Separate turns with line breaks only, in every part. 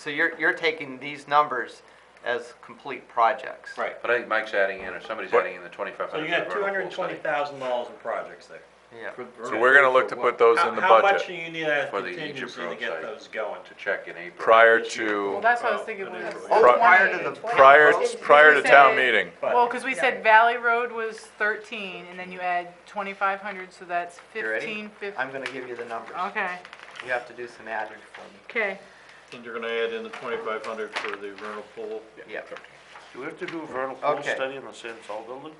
So you're, you're taking these numbers as complete projects?
Right.
But I think Mike's adding in, or somebody's adding in the twenty-five
So
hundred.
you got two hundred and twenty thousand dollars in projects there.
Yeah.
So we're gonna look to put those in the
How- How much do
budget
you need as
For the Egypt
contingency to
Road
get
site.
those going?
To check in April.
prior
Well,
to,
that's what I was
Well,
thinking
it
was.
is really-
Oh, prior to the-
prior,
Well,
prior
we
to town
said-
meeting.
But-
Well, because we said Valley Road was thirteen, and then you add twenty-five hundred, so that's
You ready?
fifteen fifty.
I'm gonna give you the numbers.
Okay,
You have to do some adding for me.
okay.
And you're gonna add in the twenty-five hundred for the vernal pool?
Yeah.
Do we have to do a vernal pool
Okay.
study on the San Sol building?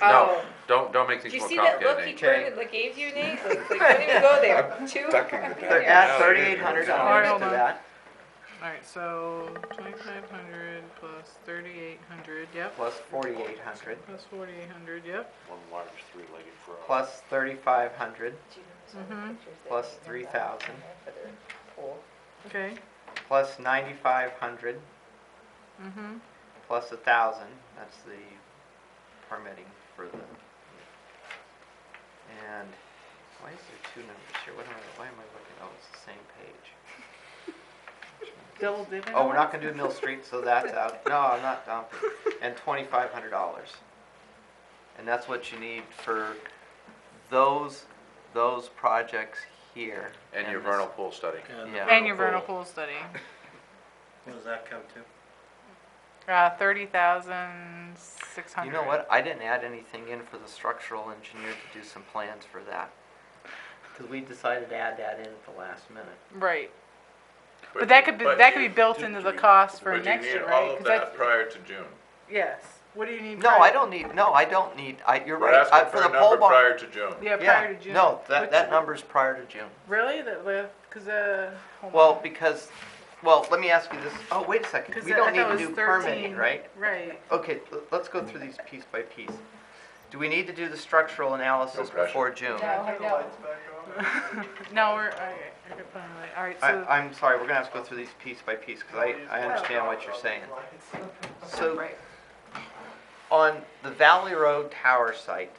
No, don't, don't make
Did
these
Oh, you
more
see that look he
complicated, Nate.
Okay.
turned, like gave you, Nate? Like, like, don't even go there. Two.
But Add thirty-eight hundred dollars to that,
Alright, so twenty-five hundred plus thirty-eight hundred, yep,
plus forty-eight hundred,
plus forty-eight hundred, yep.
One large three-legged frog.
plus thirty-five hundred,
Mhm.
plus three thousand,
Okay,
plus ninety-five hundred,
mm-hmm,
plus a thousand, that's the permitting for the. And, why is there two numbers here, what am I, why am I looking, oh, it's the same page.
double dipping.
Oh, we're not gonna do Mill Street, so that's out. No, I'm not dumping. And twenty-five hundred dollars. And that's what you need for those, those projects here.
And your
this-
vernal pool study.
Yeah,
And your vernal pool study,
What does that come to?
uh, thirty thousand six
you
hundred.
know what? I didn't add anything in for the structural engineer to do some plans for that. Cause we decided to add that in at the last minute.
Right, but that could be, that could be built into the cost for
But you
next
need
year,
all
right? 'Cause
of
that's-
that prior to June.
Yes, what do you need?
No,
prior-
I don't need, no, I don't need, I, you're
We're
right. I-
asking for
the
a
pole
number
barn-
prior to June.
Yeah,
Yeah,
prior to June.
No, that,
Which-
that number's prior to June.
Really, that, because, uh. hold on.
Well, because, well, let me ask you this, oh, wait a second,
'Cause
we
I
don't
thought
need
it
to
was
do permitting,
13.
right?
Right.
Okay, l- let's go through these piece by piece. Do we need to do the structural analysis
pressure.
before June?
No, no.
No, we're, okay, I could put it away. all right,
I,
so,
I'm sorry, we're gonna have to go through these piece by piece, because I, I understand what you're saying. So,
Right.
on the Valley Road Tower site,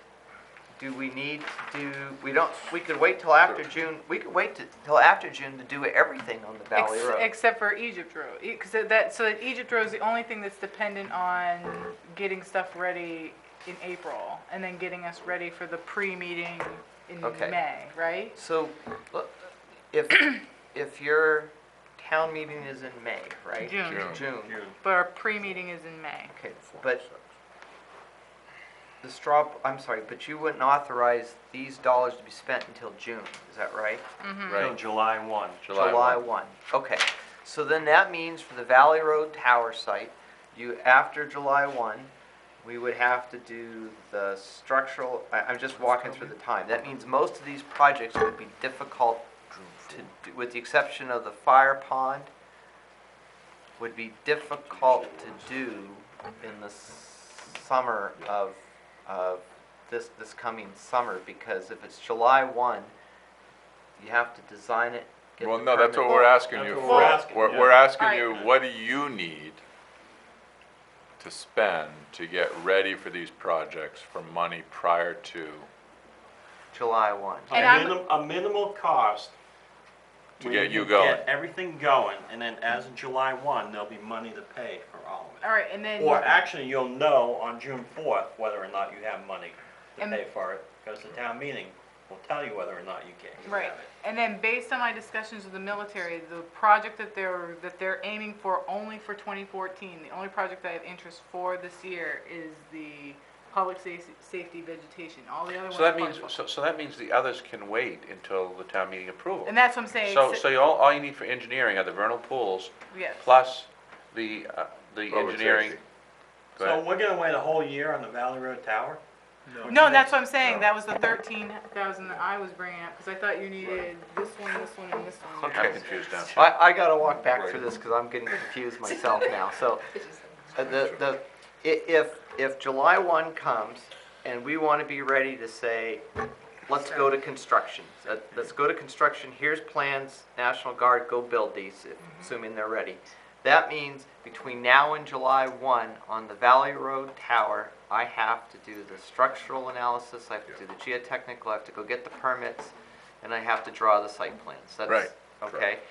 do we need to do, we don't, we could wait till after June, we could wait to- till after June to do everything on the Valley
ex-
Road.
except for Egypt Road, because that, so that Egypt Road is the only thing that's dependent on getting stuff ready in April, and then getting us ready for the pre-meeting in
Okay.
May, right?
So, l- if, if your town meeting is in May, right?
June.
June.
June.
But our pre-meeting is in May.
Okay, but the straw, I'm sorry, but you wouldn't authorize these dollars to be spent until June, is that right?
Till
Right,
July one.
July one.
Okay, so then that means for the Valley Road Tower site, you, after July one, we would have to do the structural, I, I'm just walking through the time. That means most of these projects would be difficult to, do, with the exception of the fire pond, would be difficult to do in the summer of, of this, this coming summer, because if it's July one, you have to design it, get
Well,
the
no, that's what
permit.
we're asking you
That's what we're asking,
for. We're,
yeah.
we're asking
Alright.
you, what do you need to spend to get ready for these projects for money prior to?
July one.
A
And I'm-
minim, a minimal cost.
To
where
get you
can
going.
Get everything going, and then as of July one, there'll be money to pay for all of
All right, and then.
it. Or actually, you'll know on June fourth whether or not you have money to
And-
pay for it, because the town meeting will tell you whether or not you can, you
Right,
have it.
and then based on my discussions with the military, the project that they're, that they're aiming for only for twenty fourteen, the only project I have interest for this year is the public sa- safety vegetation, all the other ones.
So that
are
means, so,
flexible.
so that means the others can wait until the town meeting approval.
And that's what I'm saying,
So,
so-
so you all, all you need for engineering are the vernal pools,
yes.
plus the, uh, the
Public
engineering.
safety.
Go
So
ahead.
we're gonna wait a whole year on the Valley Road Tower?
No, that's what I'm saying, that was the thirteen thousand that I was bringing up, cause I thought you needed this one, this one, and this one.
I'm confused now.
I, I gotta walk back through this because I'm getting confused myself now, so. uh, The, the, i- if, if July one comes and we wanna be ready to say, let's go to construction. Let- Let's go to construction, here's plans, National Guard, go build these, assuming they're ready. That means between now and July one, on the Valley Road Tower, I have to do the structural analysis, I have to do the geotechnical, I have to go get the permits, and I have to draw the site plans. That's-
Right.
okay?